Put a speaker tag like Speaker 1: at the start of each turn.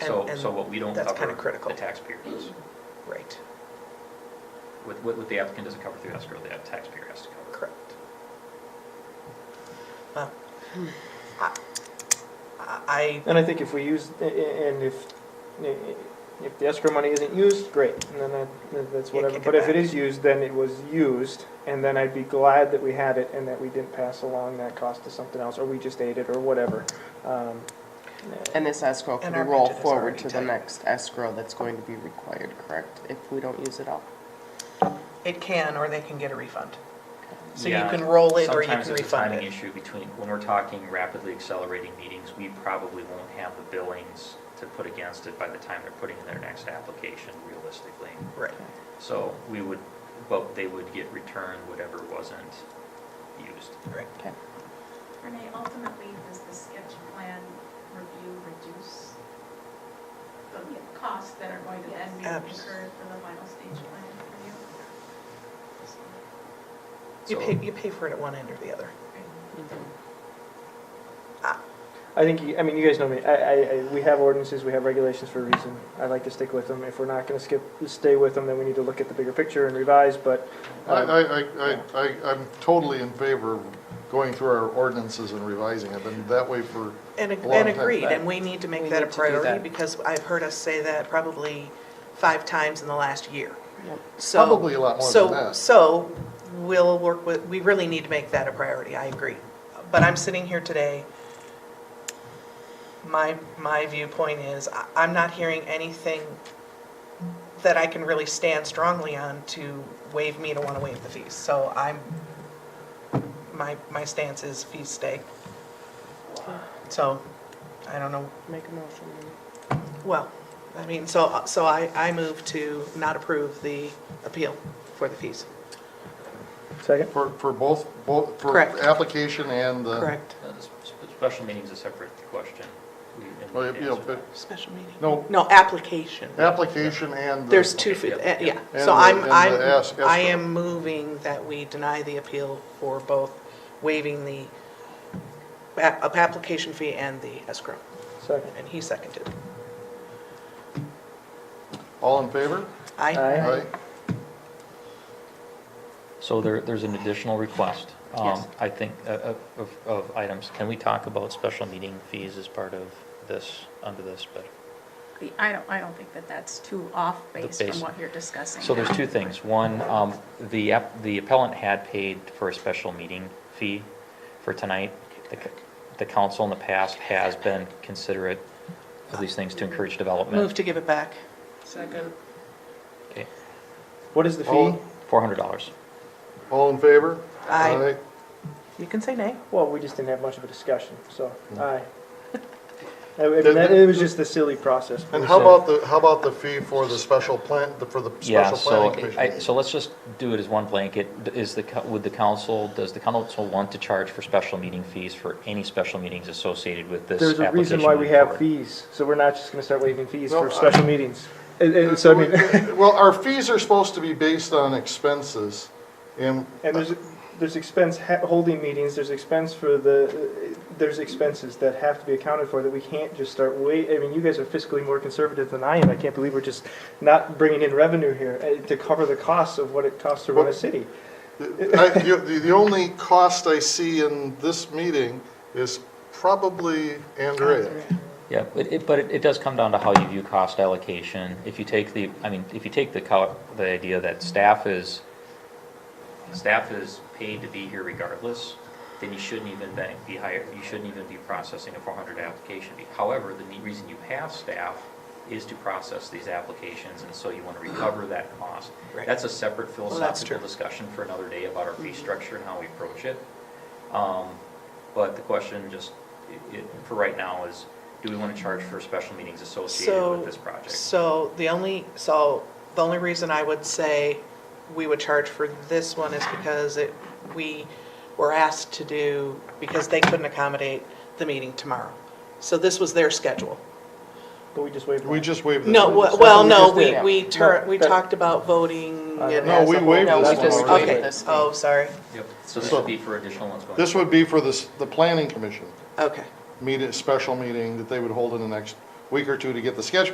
Speaker 1: So,
Speaker 2: And-
Speaker 1: so what we don't cover.
Speaker 2: and that's kinda critical.
Speaker 1: The taxpayer does.
Speaker 2: Right,
Speaker 1: What, what what the applicant doesn't cover through escrow, the taxpayer has to cover.
Speaker 2: correct. Hmm. Wow. I- I,
Speaker 3: And I think if we use, a- a- and if, if the escrow money isn't used, great, and then that, that's
Speaker 2: Yeah,
Speaker 3: whatever.
Speaker 2: kick it
Speaker 3: But if
Speaker 2: back.
Speaker 3: it is used, then it was used, and then I'd be glad that we had it and that we didn't pass along that cost to something else, or we just ate it, or whatever. Um,
Speaker 4: And this escrow
Speaker 2: And
Speaker 4: can
Speaker 2: our
Speaker 4: roll
Speaker 2: budget is
Speaker 4: forward
Speaker 2: already
Speaker 4: to the
Speaker 2: tight.
Speaker 4: next escrow that's going to be required, correct? If we don't use it all.
Speaker 2: it can, or they can get a refund. So you
Speaker 1: Yeah,
Speaker 2: can roll it or you
Speaker 1: sometimes
Speaker 2: can
Speaker 1: it's a
Speaker 2: refund
Speaker 1: timing
Speaker 2: it.
Speaker 1: issue between, when we're talking rapidly accelerating meetings, we probably won't have the billings to put against it by the time they're putting in their next application realistically.
Speaker 2: Right,
Speaker 1: So we would, but they would get returned whatever wasn't used.
Speaker 2: right.
Speaker 4: Okay.
Speaker 5: Renee, ultimately, does the sketch plan review reduce the costs that are going to then be
Speaker 2: Abs-
Speaker 5: incurred for the final stage plan review?
Speaker 2: You
Speaker 1: So-
Speaker 2: pay, you pay for it at one end or the other.
Speaker 3: I think, you- I mean, you guys know me, I, I, I- we have ordinances, we have regulations for a reason, I like to stick with them. If we're not gonna skip, stay with them, then we need to look at the bigger picture and revise, but.
Speaker 6: I,
Speaker 3: um,
Speaker 6: I, I- I, I- I'm totally in favor of going through our ordinances and revising it, been that way for,
Speaker 2: And, ag-
Speaker 6: A long
Speaker 2: and
Speaker 6: time
Speaker 2: agreed,
Speaker 6: back.
Speaker 2: and we need to make
Speaker 4: We
Speaker 2: that a
Speaker 4: need to do that.
Speaker 2: priority, because I've heard us say that probably five times in the last year.
Speaker 4: Yep.
Speaker 2: So-
Speaker 6: Probably a lot more
Speaker 2: so-
Speaker 6: than that.
Speaker 2: So, we'll work with, we really need to make that a priority, I agree. But I'm sitting here today, my, my viewpoint is, I- I'm not hearing anything that I can really stand strongly on to waive me to want to waive the fees. So I'm, my, my stance is fees stay. So, I don't know
Speaker 4: Make a motion. then.
Speaker 2: well, I mean, so, so I, I move to not approve the appeal for the fees.
Speaker 3: Second?
Speaker 6: for, for both, both, for
Speaker 2: Correct.
Speaker 6: application and the.
Speaker 2: Correct.
Speaker 1: Uh, the sp- Special meeting's a separate question. We- and
Speaker 6: Well,
Speaker 1: we
Speaker 6: you know,
Speaker 1: answer
Speaker 6: but,
Speaker 1: that.
Speaker 2: Special meeting.
Speaker 6: no,
Speaker 2: No, application.
Speaker 6: application and. the-
Speaker 2: There's two,
Speaker 1: Okay,
Speaker 2: fee-
Speaker 1: yeah,
Speaker 2: eh, yeah.
Speaker 6: yeah.
Speaker 2: So
Speaker 6: And
Speaker 2: I'm,
Speaker 6: the- and the
Speaker 2: I'm,
Speaker 6: ask-
Speaker 2: I
Speaker 6: escrow.
Speaker 2: am moving that we deny the appeal for both waiving the ap- ap- application fee and the escrow.
Speaker 3: Second.
Speaker 2: And he seconded.
Speaker 6: All in favor?
Speaker 2: I,
Speaker 3: Aye.
Speaker 1: So there, there's an additional request. um,
Speaker 2: Yes.
Speaker 1: I think, uh, uh, of, of items. Can we talk about special meeting fees as part of this, under this? But,
Speaker 7: The- I don't, I don't think that that's too off base
Speaker 1: base.
Speaker 7: from what you're discussing.
Speaker 1: so there's
Speaker 7: now.
Speaker 1: two things. One, um, the, app- the appellant had paid for a special meeting fee for tonight. The c- The council in the past has been considerate of these things to encourage development.
Speaker 2: move to give it back.
Speaker 4: Second.
Speaker 1: Okay,
Speaker 3: What is the fee?
Speaker 6: All-
Speaker 1: $400.
Speaker 6: All in favor?
Speaker 2: Aye. You can say nay.
Speaker 3: Well, we just didn't have much of a discussion, so,
Speaker 1: Mm.
Speaker 3: aye. I I mean, that- it was just the silly process.
Speaker 6: And how about the, how about the fee for the special plan, for the
Speaker 1: Yeah,
Speaker 6: special
Speaker 1: so,
Speaker 6: planning commission?
Speaker 1: I- so let's just do it as one blanket. D- Is the, co- would the council, does the council want to charge for special meeting fees for any special meetings associated with this
Speaker 3: There's
Speaker 1: application?
Speaker 3: a reason why we
Speaker 1: moving
Speaker 3: have
Speaker 1: forward?
Speaker 3: fees, so we're not just gonna start waiving fees for
Speaker 6: No, I-
Speaker 3: special meetings. And, and so, I mean,
Speaker 6: Well, our fees are supposed to be based on expenses, and
Speaker 3: and there's, there's expense ha- holding meetings, there's expense for the, there's expenses that have to be accounted for that we can't just start wait, I mean, you guys are fiscally more conservative than I am, I can't believe we're just not bringing in revenue here eh, to cover the costs of what it costs to run a
Speaker 6: Well-
Speaker 3: city.
Speaker 6: I- you- The the only cost I see in this meeting is probably Andrea.
Speaker 1: Yeah, but it, but it it does come down to how you view cost allocation. If you take the, I mean, if you take the, co- the idea that staff is, staff is paid to be here regardless, then you shouldn't even be- be hired, you shouldn't even be processing a 400 application. fee. However, the neat reason you have staff is to process these applications, and so you want to recover that cost.
Speaker 2: Right.
Speaker 1: That's a separate
Speaker 2: that's
Speaker 1: philosophical
Speaker 2: true.
Speaker 1: discussion for another day about our fee structure and how we approach it. Um, But the question just, i- i- for right now, is do we want to charge for special meetings associated
Speaker 2: So-
Speaker 1: with this project?
Speaker 2: So the only, so the only reason I would say we would charge for this one is because it, we were asked to do, because they couldn't accommodate the meeting tomorrow. So this was their schedule.
Speaker 3: But we just waived.
Speaker 6: We
Speaker 3: that.
Speaker 6: just waived this.
Speaker 2: No,
Speaker 3: what-
Speaker 2: we- well,
Speaker 3: we
Speaker 2: no,
Speaker 3: just
Speaker 2: we,
Speaker 4: did.
Speaker 2: we tur,
Speaker 3: No,
Speaker 2: we
Speaker 3: that-
Speaker 2: talked about voting.
Speaker 3: Uh,
Speaker 2: and-
Speaker 6: No, we waived
Speaker 4: No, we
Speaker 6: this
Speaker 4: just
Speaker 6: one already.
Speaker 2: Okay,
Speaker 4: waived this one.
Speaker 2: oh, sorry,
Speaker 1: Yep, so this
Speaker 6: So-
Speaker 1: would be for additional ones going.
Speaker 6: This would be for this, the planning commission,
Speaker 2: okay,
Speaker 6: meet, a special meeting that they would hold in the next week or two to get the sketch